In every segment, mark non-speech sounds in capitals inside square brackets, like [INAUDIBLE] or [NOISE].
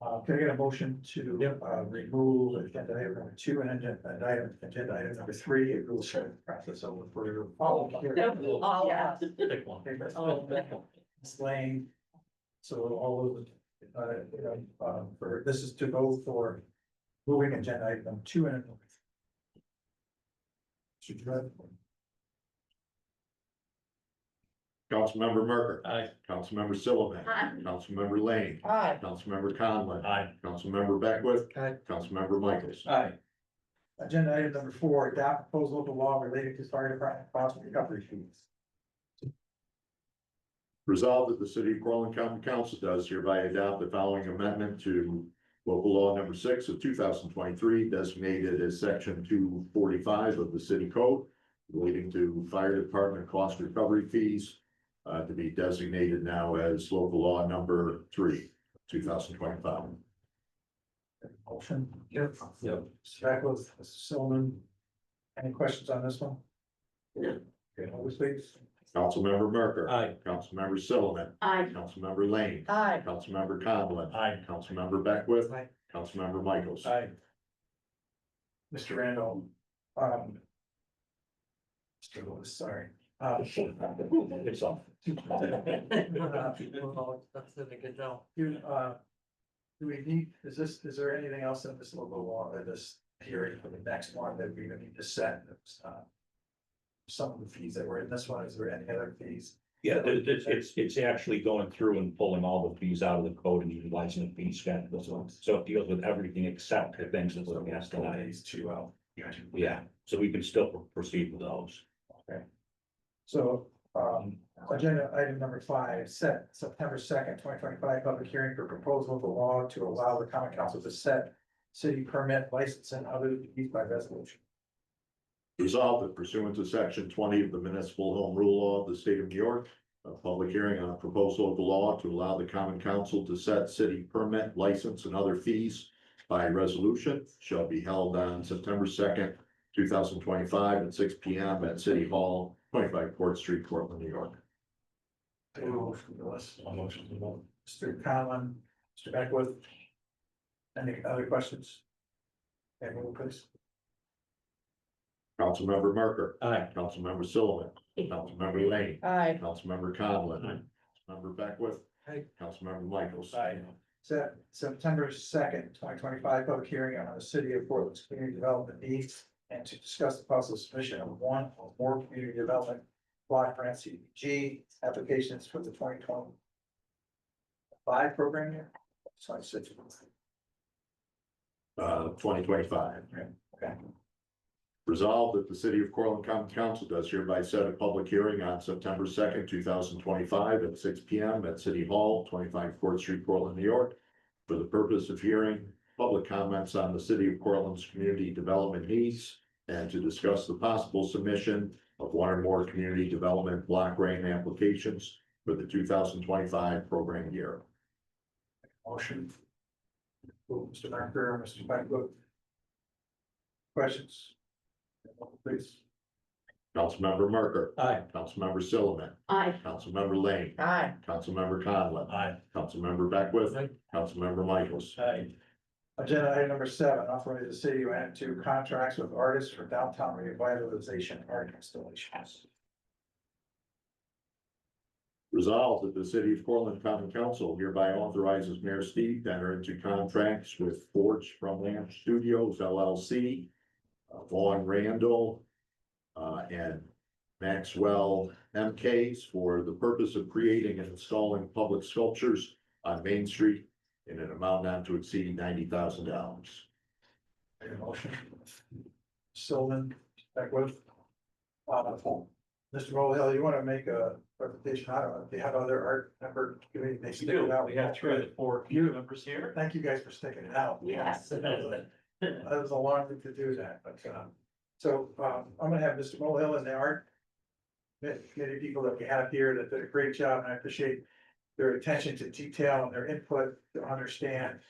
Uh, can I get a motion to, Yep. uh, remove agenda item number two and agenda, and item, agenda item number three, it will start the process over for your. Oh, That would be all Yeah. us. Pick one. Okay, that's- Oh. Ms. Lane. So all of, the, uh, you know, uh, for, this is to go for moving agenda item two and. Should you have? Councilmember Merker, Aye. Councilmember Sillman. Aye. Councilmember Lane, Aye. Councilmember Conlon. Aye. Councilmember Beckwith. Aye. Councilmember Michaels. Aye. Agenda item number four, adopt proposed local law related to fire department cost recovery fees. Resolved that the city of Portland County Council does hereby adopt the following amendment to local law number six of two thousand twenty-three designated as section two forty-five of the city code relating to fire department cost recovery fees uh, to be designated now as local law number three, two thousand twenty-five. Motion. Yep. Yep. Beckwith, Mr. Sillman. Any questions on this one? No. Okay, always please. Councilmember Merker. Aye. Councilmember Sillman. Aye. Councilmember Lane. Aye. Councilmember Conlon. Aye. Councilmember Beckwith. Aye. Councilmember Michaels. Aye. Mr. Randall, um. Mr. Lewis, sorry. Uh, It's off. You, uh. Do we need, is this, is there anything else in this local law or this hearing for the next one that we need to set? uh, Some of the fees that were in this one, is there any other fees? [LAUGHS] Yeah, it- it's, it's, it's actually going through and pulling all the fees out of the code and utilizing the fee schedule. So it deals with everything except the things that we're asked tonight. These two out. Yeah, so we can still proceed with those. So, um, agenda item number five, set September second, twenty twenty-five, public hearing for proposal of the law to allow the common council to set. City permit license and other fees by resolution. Resolved that pursuant to section twenty of the municipal home rule law of the state of New York, a public hearing on a proposal of the law to allow the common council to set city permit, license, and other fees by resolution shall be held on September second, two thousand twenty-five at six P M at City Hall, twenty-five Court Street, Portland, New York. Take a motion, Lewis. Mr. Conlon, Mr. Beckwith. Any other questions? And move please. Councilmember Merker, Aye. Councilmember Sullivan, Councilmember Lane, Aye. Councilmember Conlon, Councilmember Beckwith, Aye. Councilmember Michaels. Set September second, twenty twenty-five, public hearing on the city of Portland's community development needs. And to discuss the possible submission of one or more community development block grant CDBG applications for the twenty twenty. Five program year. So I said. uh, twenty twenty-five. Right, okay. Resolved that the city of Corlent County Council does hereby set a public hearing on September second, two thousand twenty-five at six P M at City Hall, twenty-five Court Street, Portland, New York. For the purpose of hearing public comments on the city of Cortland's community development needs. And to discuss the possible submission of one or more community development block grant applications for the two thousand twenty-five program year. Motion. Mr. Becker, Mr. Beckwith. Questions? Please. Councilmember Merker, Aye. Councilmember Sullivan, Aye. Councilmember Lane, Aye. Councilmember Conlon. Aye. Councilmember Beckwith. Aye. Councilmember Michaels. Aye. Agenda item number seven, authorize the city to enter into contracts with artists for downtown revitalization art installations. Resolved that the city of Portland Common Council hereby authorizes Mayor Steve to enter into contracts with Forge from Lamp Studios LLC. uh, Vaughn Randall. uh, and Maxwell MKs for the purpose of creating and installing public sculptures on Main Street. In an amount not to exceed ninety thousand dollars. Make a motion. Sylvan, Beckwith. Uh, Mr. Mulhill, you want to make a presentation? I don't know, do you have other art member? community they We stick it do. out? We have three of the four community members here. Thank you guys for sticking it out. Yes. [LAUGHS] That was a long thing to do that, but, um, so, um, I'm gonna have Mr. Mulhill and the art. Many people that we have here that did a great job, and I appreciate their attention to detail and their input to understand.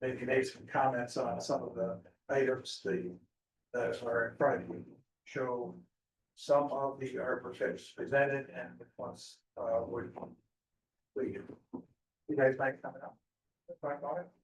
Maybe make some comments on some of the items that, that are in front of you. Show some of the art projects presented and once, uh, would. We, you guys might come up. Talk about it.